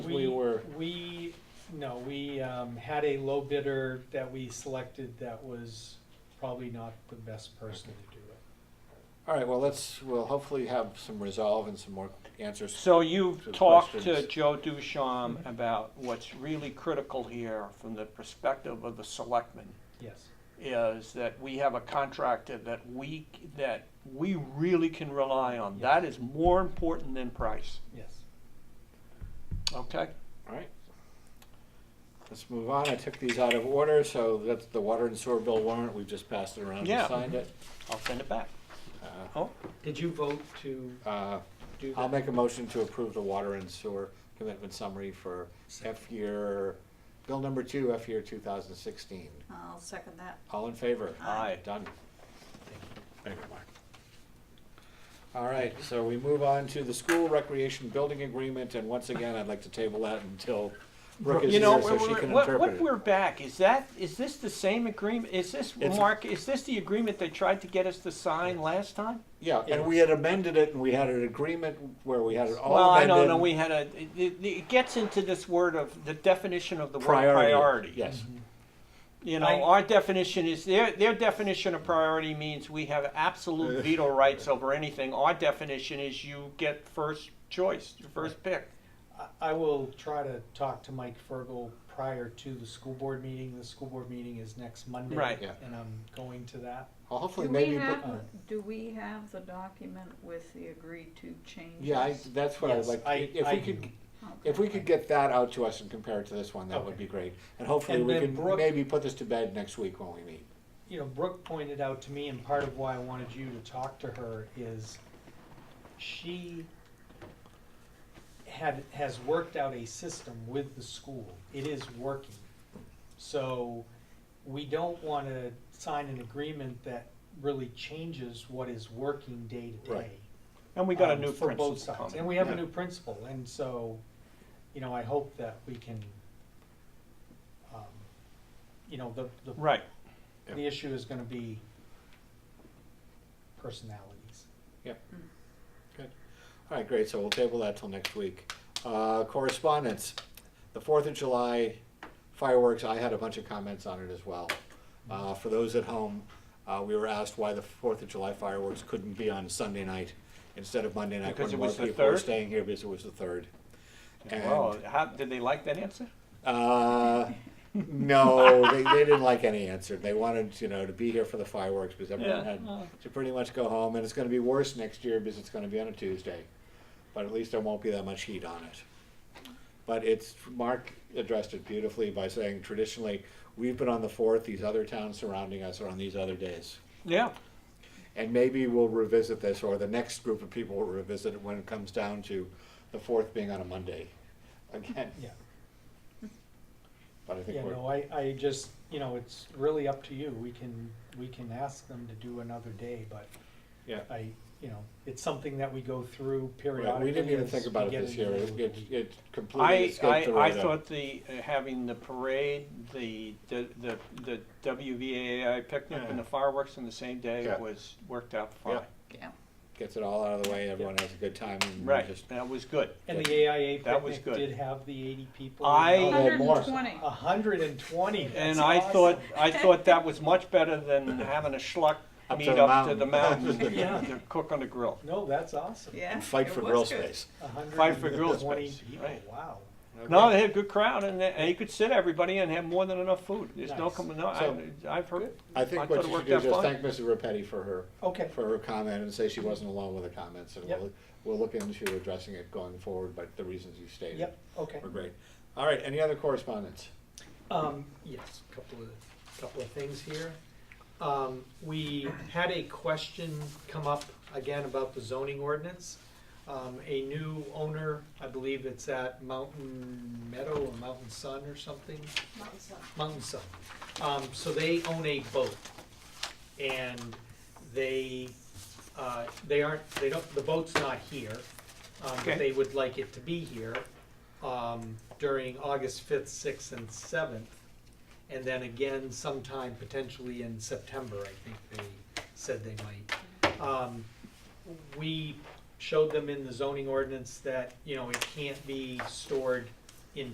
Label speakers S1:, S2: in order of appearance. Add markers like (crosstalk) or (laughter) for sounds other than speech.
S1: we were,
S2: We, no, we um, had a low bidder that we selected that was probably not the best person to do it.
S1: all right, well, let's, we'll hopefully have some resolve and some more answers.
S3: So you've
S1: To the
S3: talked to
S1: questions.
S3: Joe Dusham about what's really critical here from the perspective of the selectmen
S2: Yes,
S3: is that we have a contractor that we, that we really can rely on. That is more important than price,
S2: yes.
S3: okay?
S1: All right. Let's move on. I took these out of order, so that's the water and sewer bill warrant. We've just passed it around and
S3: Yeah.
S1: signed it.
S3: I'll send it back.
S1: Uh,
S3: Oh,
S2: Did you vote to
S1: uh,
S2: do
S1: I'll
S2: that?
S1: make a motion to approve the water and sewer commitment summary for F year, bill number two, F year two thousand sixteen.
S4: I'll second that.
S1: All in favor?
S3: Aye.
S1: Done. Thank you, Mark. All right, so we move on to the school recreation building agreement, and once again, I'd like to table that until Brooke is
S3: You
S1: here
S3: know,
S1: so
S3: we're-
S1: she
S3: we're-
S1: can
S3: what, what
S1: interpret it.
S3: we're back, is that, is this the same agreement? Is this,
S1: It's-
S3: Mark, is this the agreement they tried to get us to sign last time?
S1: Yeah, and we had amended it, and we had an agreement where we had it all amended.
S3: Well, I don't know, we had a, it, it- it gets into this word of, the definition of the word priority.
S1: Yes,
S4: Mm-hmm.
S3: You know,
S2: I-
S3: our definition is, their, their definition of priority means we have absolute veto rights over anything. Our definition is you get first choice, your first pick.
S2: I- I will try to talk to Mike Fergel prior to the school board meeting. The school board meeting is next Monday.
S3: Right.
S1: Yeah.
S2: And I'm going to that.
S1: Well, hopefully
S4: Do we
S1: maybe, uh, Brooke-
S4: have,
S2: bookmark.
S4: do we have the document with the agreed to changes?
S1: yeah, I, that's what I'd
S2: Yes,
S1: like,
S2: I-
S1: if
S2: I-
S1: we could,
S4: Okay.
S1: if we could get that out to us and compare it to this one, that would
S2: Okay.
S1: be great. And hopefully
S2: And
S1: we
S2: then
S1: can
S2: Brooke-
S1: maybe put this to bed next week when we meet.
S2: you know, Brooke pointed out to me, and part of why I wanted you to talk to her is she had, has worked out a system with the school. It is working. So we don't want to sign an agreement that really changes what is working day to day.
S1: Right.
S3: And we got a
S2: um,
S3: new
S2: For
S3: principal
S2: both sides, and
S3: coming.
S2: we have a
S1: Yeah.
S2: new principal, and so, you know, I hope that we can, um, you know, the, the
S3: Right,
S2: the issue is gonna be personalities.
S1: All right, great, so we'll table that till next week. Uh, Correspondence, the Fourth of July fireworks, I had a bunch of comments on it as well. Uh, For those at home, uh, we were asked why the Fourth of July fireworks couldn't be on Sunday night instead of Monday night. when
S3: Because it
S1: more
S3: was the
S1: people were
S3: third?
S1: Staying here because it was the third.
S3: well,
S1: And,
S3: how, did they like that answer?
S1: uh, no, they, they didn't like any answer. They wanted, you know, to be here for the fireworks because everyone had
S3: Yeah.
S1: to pretty much go home, and it's going to be worse next year because it's going to be on a Tuesday. But at least there won't be that much heat on it. But it's Mark addressed it beautifully by saying traditionally we've been on the fourth; these other towns surrounding us are on these other days,
S3: Yeah,
S1: and maybe we'll revisit this, or the next group of people will revisit it when it comes down to the fourth being on a Monday again.
S2: Yeah,
S1: But I think
S2: yeah,
S1: we're
S2: no, I, I just, you know, it's really up to you, we can, we can ask them to do another day, but
S1: yeah.
S2: I, you know, it's something that we go through
S1: Right,
S2: periodically.
S1: we didn't even
S2: as
S1: think
S2: we
S1: about
S2: get
S1: it this year.
S2: into
S1: It,
S2: the-
S1: it, it completely
S3: I,
S1: escaped
S3: I,
S1: the
S3: I
S1: radar.
S3: thought the, uh, having the parade, the, the, the the WVAI picnic and the fireworks on the same day
S1: Yeah.
S3: was, worked out
S1: Yeah.
S3: fine.
S4: Yeah,
S1: Gets it all out of the way. Everyone has a good time. And
S3: Right,
S1: Just
S3: that was good.
S2: And the AIA
S3: That was
S2: picnic
S3: good.
S2: did have the eighty people.
S3: I-
S1: Oh, well,
S4: hundred
S1: more so.
S4: and twenty.
S2: A hundred and twenty, that's
S3: And I thought,
S2: awesome.
S3: I thought that was much better than having a schluck
S1: Up to
S3: meet
S1: the
S3: up to the
S1: mountain. (laughs)
S3: mountain
S2: Yeah.
S3: to cook on the grill.
S2: No, that's awesome.
S4: Yeah.
S1: and fight
S4: it
S1: for
S4: was
S1: grill
S4: good.
S1: space.
S2: A hundred
S3: Fight for
S2: and
S3: grill
S2: twenty
S3: space,
S2: people,
S3: right.
S2: wow.
S3: No, they had a good crowd and they, and you could sit everybody and have more than enough food. There's no,
S2: Nice.
S3: com- no, I,
S1: So-
S3: I've heard.
S1: I
S3: I
S1: think
S3: thought
S1: what
S3: it
S1: you should
S3: worked
S1: do
S3: out
S1: is just thank
S3: fine.
S1: Mrs. Repetti for her,
S2: Okay,
S1: for her comment and say she wasn't alone with her comments. And
S2: Yep.
S1: we'll, we'll look into addressing it going forward, but the reasons you stated
S2: yep, okay.
S1: were great. All right, any other correspondence?
S2: Um, yes, a couple of, couple of things here. Um, we had a question come up again about the zoning ordinance. Um, a new owner, I believe it's at Mountain Meadow or Mountain Sun or something, Mountain Sun. Um, so they own a boat. And they, uh, they aren't, they don't, the boat's not here. Um,
S3: Okay.
S2: but they would like it to be here, um, during August fifth, sixth, and seventh. And then again sometime potentially in September, I think they said they might. Um, we showed them in the zoning ordinance that, you know, it can't be stored